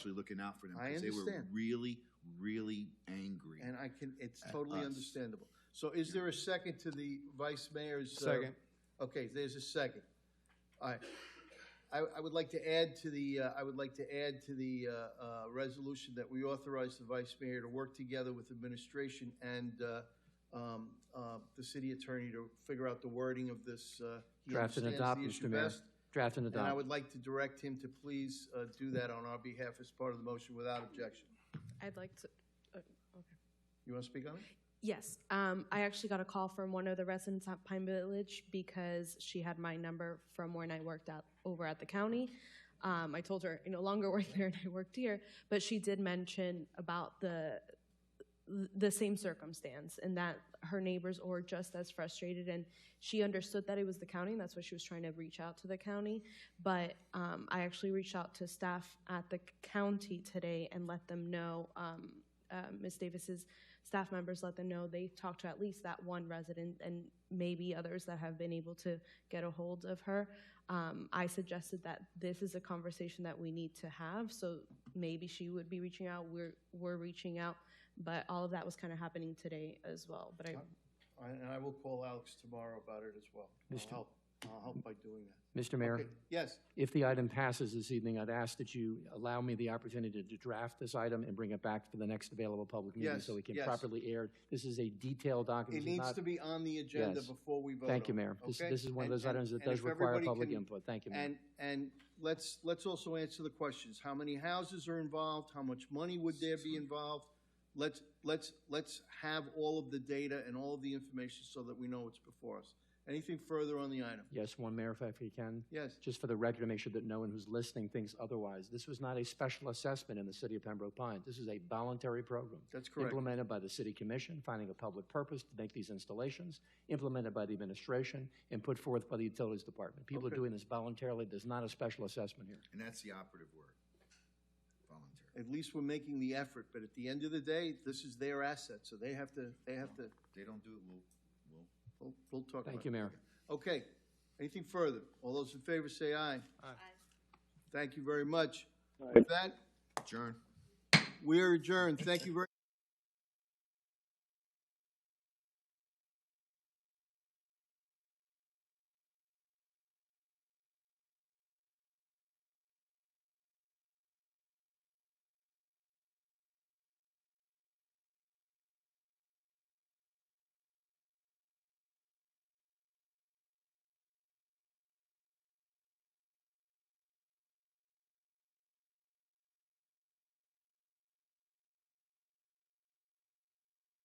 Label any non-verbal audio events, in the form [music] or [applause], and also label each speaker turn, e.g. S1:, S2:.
S1: actually looking out for them.
S2: I
S1: 'cause They were
S2: understand.
S1: really, really angry.
S2: And I can, it's
S1: At
S2: totally
S1: us.
S2: understandable. So is there a second to the vice mayor's? uh,
S3: Second.
S2: Okay, there's a second. All right. I, I would like to add to the, uh, I would like to add to the uh, uh, resolution that we authorize the vice mayor to work together with administration and uh, um, uh, the city attorney to figure out the wording of this. uh, he
S3: Draft
S2: understands
S3: and
S2: the
S3: adopt,
S2: issue
S3: Mr. Mayor.
S2: best.
S3: Draft and
S2: And I
S3: adopt.
S2: would like to direct him to please uh, do that on our behalf as part of the motion without objection.
S4: I'd like to, uh, okay.
S2: You want to speak on it?
S4: Yes, um, I actually got a call from one of the residents at Pine Village because she had my number from when I worked out over at the county. Um, I told her I no longer [laughs] work there and I worked here, but she did mention about the the same circumstance and that her neighbors were just as frustrated and she understood that it was the county and that's why she was trying to reach out to the county but um, i actually reached out to staff at the county today and let them know um, uh, ms davis's staff members let them know they talked to at least that one resident and maybe others that have been able to get a hold of her um, i suggested that this is a conversation that we need to have so maybe she would be reaching out we're, we're reaching out but all of that was kind of happening today as well. But I,
S2: I- And I will call Alex tomorrow about it as well. I'll
S3: Mr.
S2: help, I'll help by doing that.
S3: Mr. Mayor,
S2: Okay, Yes,
S3: if the item passes this evening, I'd ask that you allow me the opportunity to draft this item and bring it back for the next available public meeting
S2: Yes,
S3: so it can
S2: yes.
S3: properly air. This is a detailed document.
S2: it
S3: This is
S2: needs
S3: not-
S2: to be on the agenda
S3: Yes.
S2: before we vote
S3: Thank you,
S2: on it,
S3: Mayor. This,
S2: okay?
S3: this is one of
S2: And-
S3: those
S2: and-
S3: items that
S2: and
S3: does
S2: if
S3: require
S2: everybody
S3: public
S2: can-
S3: input. Thank you, Mayor.
S2: And, and let's, let's also answer the questions. How many houses are involved? How much money would there be involved? Let's, let's, let's have all of the data and all of the information so that we know what's before us. Anything further on the item?
S3: Yes, one mayor, if I if you can.
S2: Yes.
S3: Just for the record, to make sure that no one who's listening thinks otherwise. This was not a special assessment in the city of Pembroke Pines. This is a voluntary program.
S2: That's correct.
S3: Implemented by the city commission, finding a public purpose to make these installations, implemented by the administration, and put forth by the utilities department. People are
S2: Okay.
S3: doing this voluntarily. There's not a special assessment here.
S1: And that's the operative word, voluntary.
S2: At least we're making the effort, but at the end of the day, this is their asset, so they have to, they have to,
S1: They don't do it, we'll, we'll
S2: we'll, we'll talk about it.
S3: Thank you, Mayor.
S2: Okay, anything further? All those in favor say aye. Aye. Thank you very much. With that,
S1: adjourn.
S2: we are adjourned. Thank you very.